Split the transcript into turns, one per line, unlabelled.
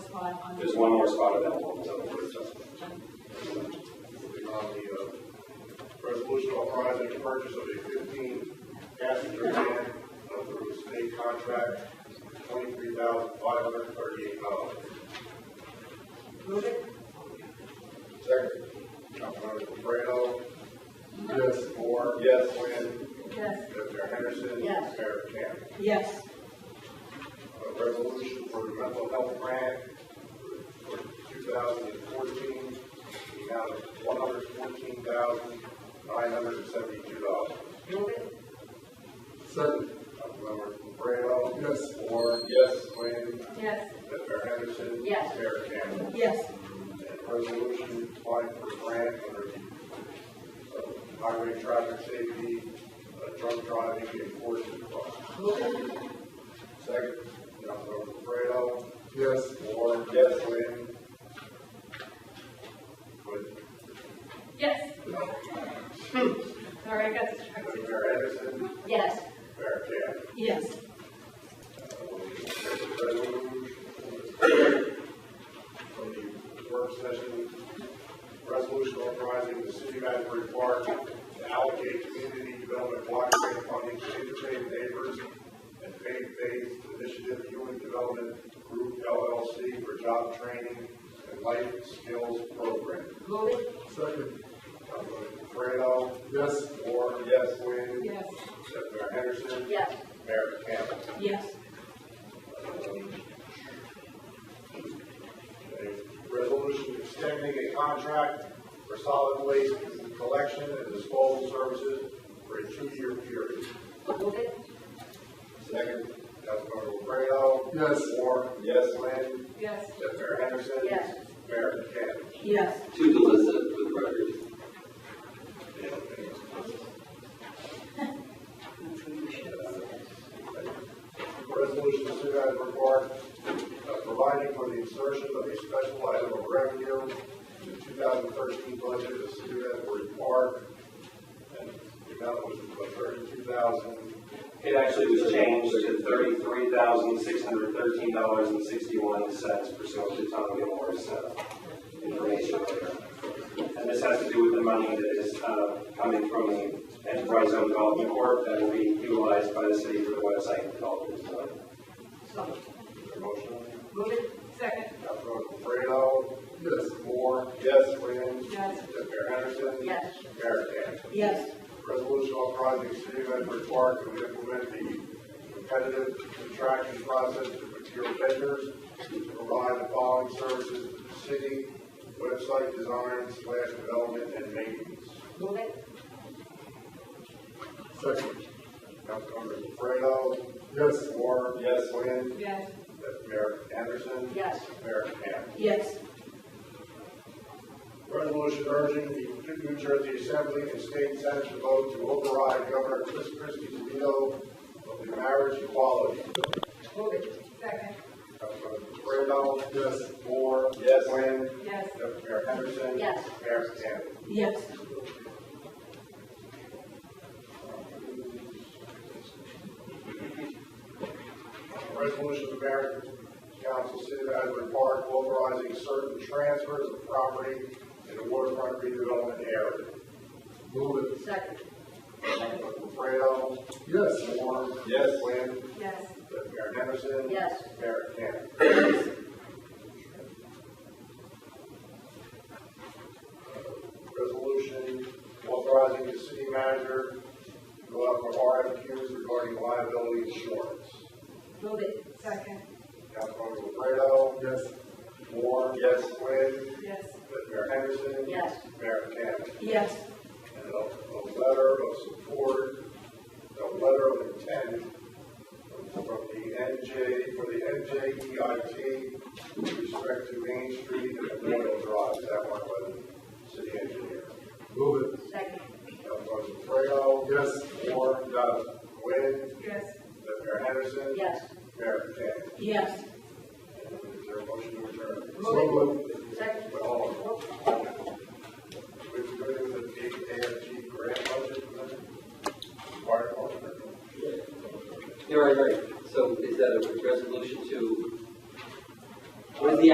spot on.
There's one more spot available, it's up for adjustment.
Moving on the uh, resolution authorizing the purchase of a fifteen passenger van uh, through state contract, twenty-three thousand five hundred thirty-eight dollars.
Move it?
Second. Councilmember Fredo. Yes. Moore.
Yes.
Quinn.
Yes.
Mayor Henderson.
Yes.
Mayor Camp.
Yes.
A resolution for the mental health grant for two thousand and fourteen, the amount of one hundred fourteen thousand, nine hundred and seventy-two dollars.
Move it?
Second. Councilmember Fredo. Yes. Moore. Yes. Quinn.
Yes.
Mayor Henderson.
Yes.
Mayor Campbell.
Yes.
resolution applying for grant under the uh, highway traffic safety, uh, drunk driving enforcement law.
Move it?
Second, Councilmember Fredo. Yes. Moore. Yes. Quinn. Quinn.
Yes. Sorry, I got distracted.
Mayor Anderson.
Yes.
Mayor Camp.
Yes.
From the work session, resolution authorizing the city of Asbury Park to allocate community development block grant funding to interfaith neighbors and faith-based initiative human development group LLC for job training and life skills program.
Move it?
Second. Councilman Fredo. Yes. Moore. Yes. Quinn.
Yes.
Mayor Henderson.
Yes.
Mayor Campbell.
Yes.
A resolution extending a contract for solid waste collection and disposal services for a two-year period.
Move it?
Second, Councilmember Fredo. Yes. Moore. Yes. Lynn.
Yes.
Mayor Henderson.
Yes.
Mayor Campbell.
Yes.
to Delissa for the record.
Resolution to City Island Park, uh, providing for the insertion of a special item of revenue in the 2013 budget of City of Asbury Park. And the amount was about 32,000.
It actually was changed to thirty-three thousand, six hundred thirteen dollars and sixty-one cents pursuant to Tommy Moore's, uh, information there. And this has to do with the money that is, uh, coming from the Enterprise Zone Development Corp. that will be utilized by the city for the website development. So,
So,
Motion,
move it? Second?
Councilmember Fredo. Yes. Moore. Yes. Quinn.
Yes.
Mayor Henderson.
Yes.
Mayor Campbell.
Yes.
Resolution authorizing the city of Edward Park to implement the competitive contracting process to procure vendors to provide the following services to the city, website design slash development and maintenance.
Move it?
Second. Councilmember Fredo. Yes. Moore. Yes. Quinn.
Yes.
Mayor Anderson.
Yes.
Mayor Campbell.
Yes.
Resolution urging the New Jersey Assembly and State Senate to vote to override Governor Chris Christie's veto of the marriage equality bill.
Move it? Second?
Randolph. Yes. Moore. Yes. Quinn.
Yes.
Mayor Henderson.
Yes.
Mayor Campbell.
Yes.
Resolution of the Mayor and Council City of Asbury Park authorizing certain transfers of property in the waterfront redevelopment area. Move it.
Second?
Fredo. Yes. Moore. Yes. Quinn.
Yes.
Mayor Henderson.
Yes.
Mayor Campbell. resolution authorizing the city manager to go out for RFQs regarding liability insurance.
Move it? Second?
Councilmember Fredo. Yes. Moore. Yes. Quinn.
Yes.
Mayor Henderson.
Yes.
Mayor Campbell.
Yes.
And a, a letter of support, a letter of intent from the NJ, for the NJEIT with respect to Main Street and Memorial Drive, Is that one by the city engineer. Move it.
Second?
Councilman Fredo. Yes. Moore. Yes. Quinn.
Yes.
Mayor Henderson.
Yes.
Mayor Camp.
Yes.
Is there a motion to adjourn?
Move it. Second?
Well,